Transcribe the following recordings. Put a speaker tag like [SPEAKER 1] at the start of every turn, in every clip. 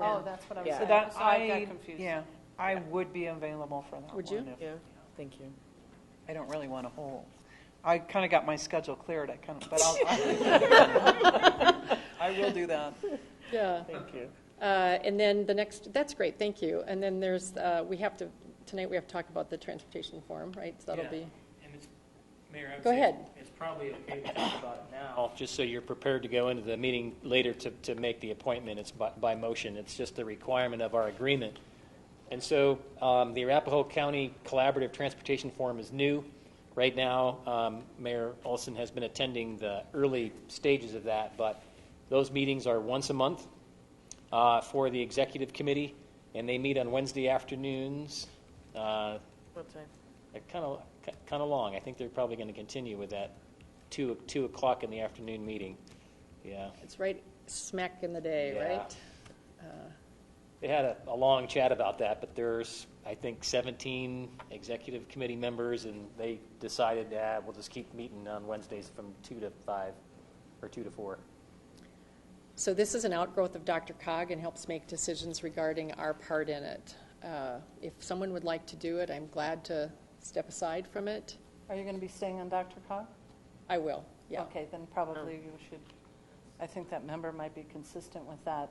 [SPEAKER 1] Oh, that's what I was
[SPEAKER 2] Yeah.
[SPEAKER 1] saying.
[SPEAKER 3] So that,
[SPEAKER 1] I
[SPEAKER 3] I,
[SPEAKER 1] got confused.
[SPEAKER 3] yeah, I would be available for that one.
[SPEAKER 2] Would you?
[SPEAKER 3] if-
[SPEAKER 2] Yeah, thank you.
[SPEAKER 3] I don't really want to hold. I kind of got my schedule cleared, I kind of, but I'll, I will do that.
[SPEAKER 2] Yeah.
[SPEAKER 3] Thank you.
[SPEAKER 2] Uh, And then the next, that's great, thank you. And then there's, uh, we have to, tonight we have to talk about the transportation forum, right? So that'll
[SPEAKER 4] Yeah.
[SPEAKER 2] be,
[SPEAKER 4] And it's, Mayor, I would
[SPEAKER 2] Go
[SPEAKER 4] say
[SPEAKER 2] ahead.
[SPEAKER 4] It's probably okay to talk about it now, just so you're prepared to go into the meeting later to, to make the appointment. It's by, by motion. It's just a requirement of our agreement. And so, um, the Arapahoe County Collaborative Transportation Forum is new. Right now, um, Mayor Olson has been attending the early stages of that, but those meetings are once a month uh, for the executive committee, and they meet on Wednesday afternoons. Uh,
[SPEAKER 2] what time?
[SPEAKER 4] they're kind of, kind of long. I think they're probably going to continue with that two, two o'clock in the afternoon meeting. Yeah.
[SPEAKER 2] It's right smack in the day,
[SPEAKER 4] Yeah.
[SPEAKER 2] right?
[SPEAKER 4] They had a, a long chat about that, but there's, I think, seventeen executive committee members, and they decided, ah, we'll just keep meeting on Wednesdays from two to five, or two to four.
[SPEAKER 2] So this is an outgrowth of Dr. Cog and helps make decisions regarding our part in it. Uh, If someone would like to do it, I'm glad to step aside from it.
[SPEAKER 1] Are you going to be staying on Dr. Cog?
[SPEAKER 2] I will, yeah.
[SPEAKER 1] Okay, then probably you should, I think that member might be consistent with that,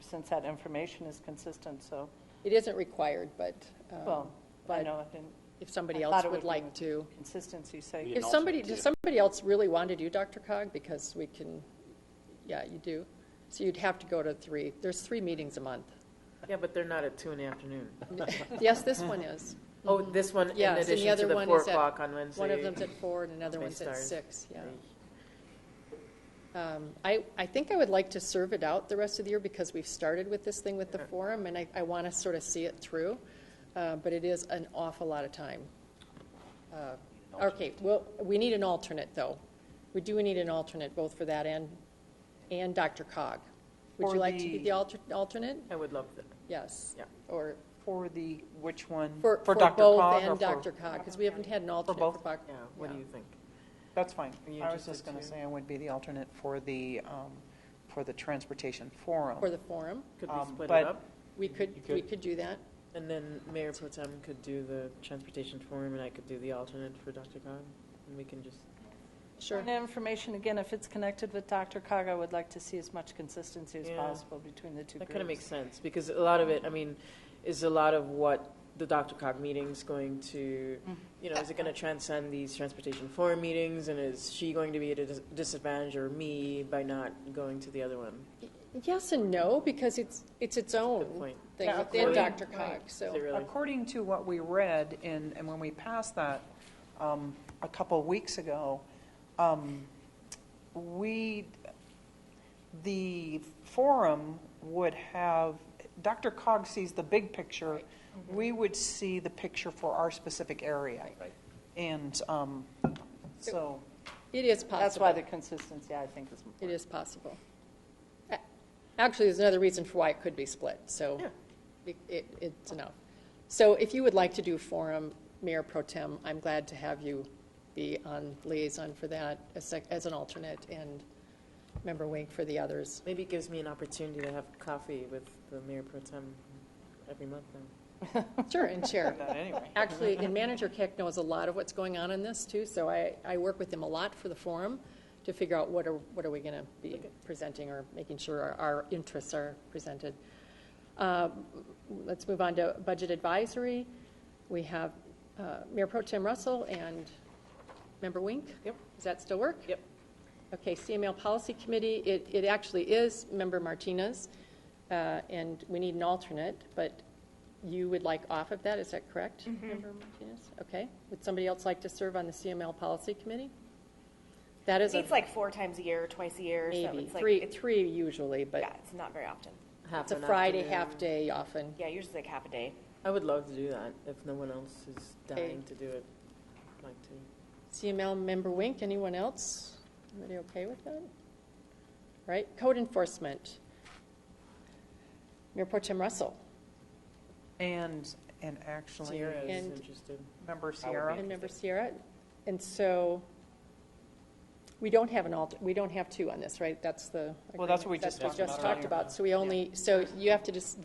[SPEAKER 1] since that information is consistent, so,
[SPEAKER 2] It isn't required, but um,
[SPEAKER 1] well, I
[SPEAKER 2] but
[SPEAKER 1] know, I didn't.
[SPEAKER 2] if somebody
[SPEAKER 1] I
[SPEAKER 2] else
[SPEAKER 1] thought it
[SPEAKER 2] would
[SPEAKER 1] be
[SPEAKER 2] like
[SPEAKER 1] with
[SPEAKER 2] to.
[SPEAKER 1] Consistency, say.
[SPEAKER 4] Yeah.
[SPEAKER 2] If
[SPEAKER 4] an
[SPEAKER 2] somebody,
[SPEAKER 4] alternate
[SPEAKER 2] does somebody else really want to do Dr. Cog? Because we can, yeah, you do. So you'd have to go to three. There's three meetings a month.
[SPEAKER 5] Yeah, but they're not at two in the afternoon.
[SPEAKER 2] Yes, this one is.
[SPEAKER 5] Oh, this one in
[SPEAKER 2] Yes, and the
[SPEAKER 5] addition to
[SPEAKER 2] other
[SPEAKER 5] the
[SPEAKER 2] one
[SPEAKER 5] four
[SPEAKER 2] is at,
[SPEAKER 5] o'clock on Wednesday.
[SPEAKER 2] one of them's at four and another
[SPEAKER 5] Maybe
[SPEAKER 2] one's at
[SPEAKER 5] stars.
[SPEAKER 2] six, yeah. Um, I, I think I would like to serve it out the rest of the year because we've started with this thing with the forum and I, I want to sort of see it through. Uh, but it is an awful lot of time. Uh, Okay, well, we need an alternate though. We do need an alternate both for that and, and Dr. Cog. Would
[SPEAKER 3] For
[SPEAKER 2] you like to be
[SPEAKER 3] the-
[SPEAKER 2] the alter, alternate?
[SPEAKER 5] I would love that.
[SPEAKER 2] Yes.
[SPEAKER 5] Yeah.
[SPEAKER 2] Or
[SPEAKER 3] For the, which one?
[SPEAKER 2] for, for
[SPEAKER 3] Dr.
[SPEAKER 2] both
[SPEAKER 3] Cog or
[SPEAKER 2] and
[SPEAKER 3] for-
[SPEAKER 2] Dr. Cog, because we haven't had an alternate for
[SPEAKER 3] both?
[SPEAKER 2] Cog.
[SPEAKER 5] Yeah, what do
[SPEAKER 2] Yeah.
[SPEAKER 5] you think?
[SPEAKER 3] That's fine.
[SPEAKER 5] Are you
[SPEAKER 3] I was
[SPEAKER 5] interested
[SPEAKER 3] just going to
[SPEAKER 5] too?
[SPEAKER 3] say I would be the alternate for the, um, for the transportation forum.
[SPEAKER 2] For the forum,
[SPEAKER 5] Could
[SPEAKER 3] Um,
[SPEAKER 5] we split
[SPEAKER 3] but-
[SPEAKER 5] it up?
[SPEAKER 2] we could,
[SPEAKER 4] You could-
[SPEAKER 2] we could do that.
[SPEAKER 5] And then Mayor Pro Tem could do the transportation forum, and I could do the alternate for Dr. Cog, and we can just.
[SPEAKER 2] Sure.
[SPEAKER 1] And information, again, if it's connected with Dr. Cog, I would like to see as much consistency as
[SPEAKER 5] Yeah.
[SPEAKER 1] possible between the two
[SPEAKER 5] That
[SPEAKER 1] groups.
[SPEAKER 5] kind of makes sense, because a lot of it, I mean, is a lot of what the Dr. Cog meeting's going to, you know, is it going to transcend these transportation forum meetings, and is she going to be at a dis- disadvantage or me by not going to the other one?
[SPEAKER 2] Yes and no, because it's, it's its
[SPEAKER 5] Good
[SPEAKER 2] own
[SPEAKER 5] point.
[SPEAKER 2] thing
[SPEAKER 3] Yeah,
[SPEAKER 2] within
[SPEAKER 3] according-
[SPEAKER 2] Dr. Cog,
[SPEAKER 3] right.
[SPEAKER 2] so.
[SPEAKER 5] Is it really?
[SPEAKER 3] According to what we read, and, and when we passed that um, a couple of weeks ago, um, we, the forum would have, Dr. Cog sees the big picture, we would see the picture for our specific area.
[SPEAKER 4] Right.
[SPEAKER 3] And um, so,
[SPEAKER 2] It is
[SPEAKER 1] That's why the
[SPEAKER 2] possible.
[SPEAKER 1] consistency, I think, is important.
[SPEAKER 2] It is possible. A- Actually, there's another reason for why it could be split, so
[SPEAKER 5] Yeah.
[SPEAKER 2] it, it- it's enough. So if you would like to do forum, Mayor Pro Tem, I'm glad to have you be on liaison for that as, sec- as an alternate and Member Wink for the others.
[SPEAKER 5] Maybe it gives me an opportunity to have coffee with the mayor pro tem every month then.
[SPEAKER 2] Sure, and chair.
[SPEAKER 3] but anyway.
[SPEAKER 2] Actually, and Manager Keck knows a lot of what's going on in this too, so I, I work with him a lot for the forum to figure out what are, what are we going to be presenting or making sure our, our interests are presented. Uh, Let's move on to Budget Advisory. We have uh, Mayor Pro Tem Russell and Member Wink.
[SPEAKER 5] Yep.
[SPEAKER 2] Does that still work?
[SPEAKER 5] Yep.
[SPEAKER 2] Okay, CML Policy Committee, it, it actually is Member Martinez, uh, and we need an alternate, but you would like off of that, is that correct?
[SPEAKER 5] Mm-hmm.
[SPEAKER 2] Member Martinez, okay. Would somebody else like to serve on the CML Policy Committee? That is a
[SPEAKER 6] It's like four times a year, twice a year. so
[SPEAKER 2] maybe,
[SPEAKER 6] it's like,
[SPEAKER 2] three,
[SPEAKER 6] It's,
[SPEAKER 2] three usually,
[SPEAKER 6] yeah,
[SPEAKER 2] but
[SPEAKER 6] it's not very often.
[SPEAKER 5] Half
[SPEAKER 2] it's a
[SPEAKER 5] an
[SPEAKER 2] Friday
[SPEAKER 5] afternoon.
[SPEAKER 2] half-day often.
[SPEAKER 6] Yeah, yours is like half a day.
[SPEAKER 5] I would love to do that if no one else is
[SPEAKER 2] Okay.
[SPEAKER 5] dying to do it. I'd like to.
[SPEAKER 2] CML Member Wink, anyone else? Anybody okay with that? Right, Code Enforcement. Mayor Pro Tem Russell
[SPEAKER 3] And, and actually,
[SPEAKER 5] Sierra is
[SPEAKER 2] And-
[SPEAKER 5] interested.
[SPEAKER 3] member Sierra,
[SPEAKER 2] and Member Sierra, and so We don't have an alt, we don't have two on this, right? That's the.
[SPEAKER 3] Well, that's what we
[SPEAKER 2] agreement.
[SPEAKER 3] just
[SPEAKER 2] That's
[SPEAKER 3] talked
[SPEAKER 2] just
[SPEAKER 3] about
[SPEAKER 2] talked about. So we only, so you have to just